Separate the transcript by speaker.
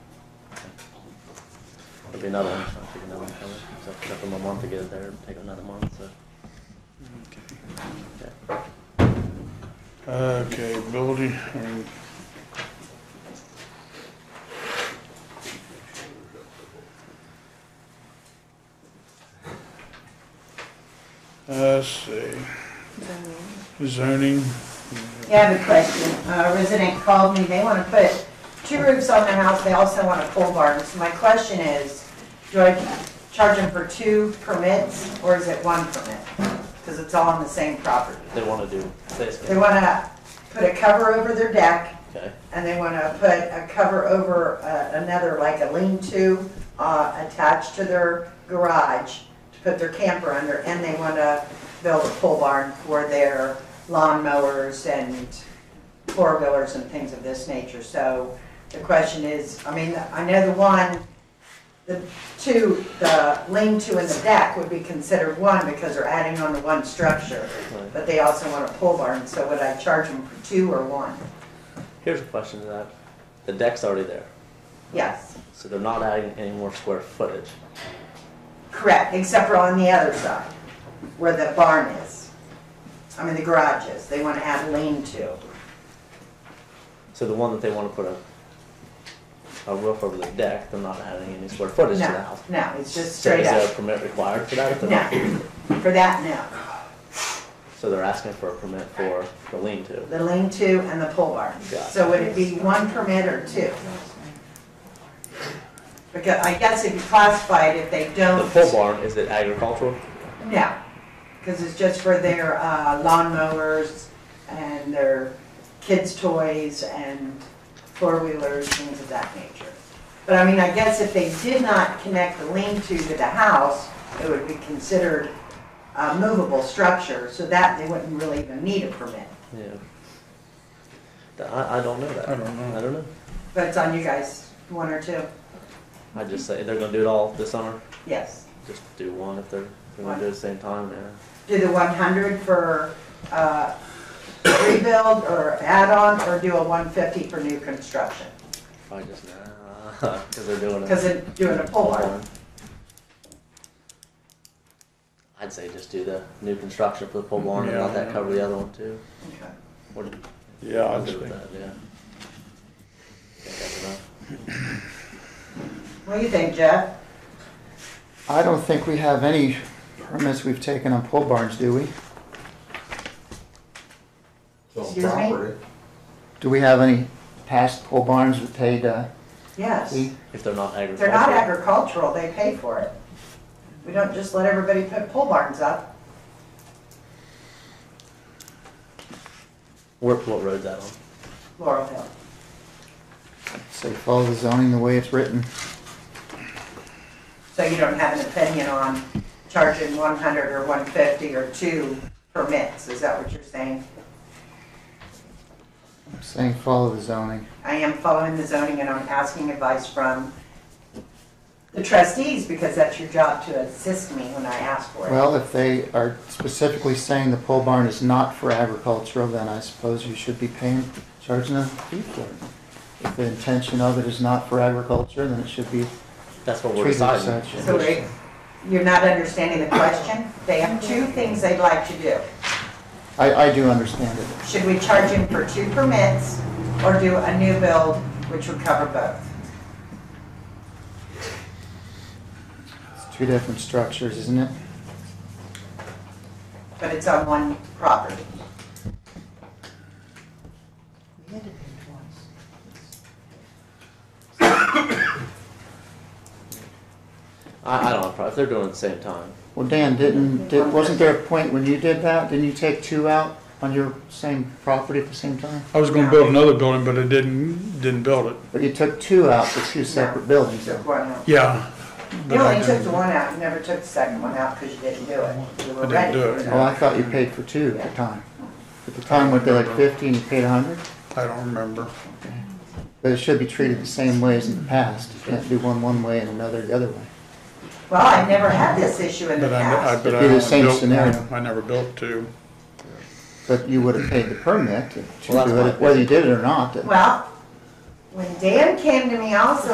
Speaker 1: be another one, so I took another one from it. So it took them a month to get it there, it'd take another month, so. yeah.
Speaker 2: Okay, building, um, let's see, zoning,
Speaker 3: Yeah, I have a question. A resident called me, they want to put two roofs on their house, they also want a pole barn. So my question is, do I charge them for two permits, or is it one permit? Because it's all on the same property.
Speaker 1: They wanna do this,
Speaker 3: They want to put a cover over their deck,
Speaker 1: okay,
Speaker 3: and they want to put a cover over uh, another, like a lean-to uh, attached to their garage to put their camper under, and they want to build a pole barn for their lawn mowers and four-wheelers and things of this nature. So the question is, I mean, I know the one, the two, the lean-to and the deck would be considered one because they're adding on to one structure.
Speaker 1: right.
Speaker 3: But they also want a pole barn, so would I charge them for two or one?
Speaker 1: Here's a question to that. The deck's already there,
Speaker 3: Yes,
Speaker 1: so they're not adding any more square footage.
Speaker 3: correct, except for on the other side, where the barn is. I mean, the garage is, they want to add lean-to.
Speaker 1: So the one that they wanna put a, a roof over the deck, they're not adding any square footage to the
Speaker 3: No,
Speaker 1: house.
Speaker 3: no, it's just
Speaker 1: So
Speaker 3: straight
Speaker 1: is there a
Speaker 3: up.
Speaker 1: permit required for that? if they're
Speaker 3: No,
Speaker 1: not-
Speaker 3: for that,
Speaker 1: So they're asking for a permit for the lean-to.
Speaker 3: no. The lean-to and the pole barn.
Speaker 1: Got it.
Speaker 3: So would it be one permit or two? Because I guess if you classify it, if they
Speaker 1: The
Speaker 3: don't.
Speaker 1: pole barn, is it agricultural?
Speaker 3: No, because it's just for their uh, lawn mowers and their kids' toys and four-wheelers, things of that nature. But I mean, I guess if they did not connect the lean-to to the house, it would be considered a movable structure, so that they wouldn't really even need a permit.
Speaker 1: Yeah. Th- I, I don't know that.
Speaker 2: I don't know.
Speaker 1: I don't know.
Speaker 3: But it's on you guys, one or two,
Speaker 1: I just say they're gonna do it all this summer.
Speaker 3: yes.
Speaker 1: Just do one if they're, if they're gonna do it at the same time, yeah.
Speaker 3: Do the 100 for uh, rebuild or add-on, or do a 150 for new construction?
Speaker 1: Probably just nah, because they're doing it.
Speaker 3: Because they're doing a pole barn.
Speaker 1: I'd say just do the new construction for the pole barn and let
Speaker 2: Yeah.
Speaker 1: that cover the other one too.
Speaker 3: Okay.
Speaker 1: What do you-
Speaker 2: yeah,
Speaker 1: I'm
Speaker 2: I'd
Speaker 1: good with
Speaker 2: say,
Speaker 1: that, yeah. Think that's enough.
Speaker 3: What do you think, Jeff?
Speaker 4: I don't think we have any permits we've taken on pole barns, do we?
Speaker 5: It's on
Speaker 3: Excuse me?
Speaker 5: property.
Speaker 4: Do we have any past pole barns that paid uh,
Speaker 3: Yes.
Speaker 4: fee?
Speaker 1: If they're not agricultural.
Speaker 3: They're not agricultural, they pay for it. We don't just let everybody put pole barns up.
Speaker 1: Where, what road's that on?
Speaker 3: Laurel Hill.
Speaker 4: Say follow the zoning the way it's written.
Speaker 3: So you don't have an opinion on charging one hundred or one fifty or two permits, is that what you're saying?
Speaker 4: I'm saying follow the zoning.
Speaker 3: I am following the zoning and I'm asking advice from the trustees because that's your job to assist me when I ask for it.
Speaker 4: Well, if they are specifically saying the pole barn is not for agricultural, then I suppose you should be paying, charging a fee for it. If the intention of it is not for agriculture, then it should be
Speaker 1: That's what we're
Speaker 4: treated as
Speaker 1: deciding.
Speaker 4: such.
Speaker 3: So wait, you're not understanding the question? They have two things they'd like to do.
Speaker 4: I, I do understand it.
Speaker 3: Should we charge him for two permits or do a new build, which would cover both?
Speaker 4: It's two different structures, isn't it?
Speaker 3: But it's on one property.
Speaker 1: I, I don't have a problem. If they're doing it at the same time,
Speaker 4: Well, Dan, didn't, did- wasn't there a point when you did that? Didn't you take two out on your same property at the same time?
Speaker 2: I was gonna build another building, but I didn't, didn't build it,
Speaker 4: But you took two out for two separate buildings. Oh,
Speaker 3: Took one out.
Speaker 2: yeah. but
Speaker 3: You
Speaker 2: I
Speaker 3: only took
Speaker 2: didn't-
Speaker 3: the one out, you never took the second one out because you didn't do it. You were
Speaker 2: I didn't
Speaker 3: ready
Speaker 2: do
Speaker 3: for
Speaker 2: it.
Speaker 4: Oh, I thought you paid for two at the time. At the time, were they like fifty and you paid a hundred?
Speaker 2: I don't remember,
Speaker 4: But it should be treated the same way as in the past. You can't do one one way and another the other way.
Speaker 3: Well, I never had this issue in the
Speaker 2: but I, I,
Speaker 3: past.
Speaker 2: but I
Speaker 4: It'd be the
Speaker 2: only
Speaker 4: same
Speaker 2: built
Speaker 4: scenario.
Speaker 2: one, I never built two.
Speaker 4: But you would have paid the permit to
Speaker 1: Well, that's
Speaker 4: do
Speaker 1: my
Speaker 4: it, whether you did it or not.
Speaker 3: Well, when Dan came to me also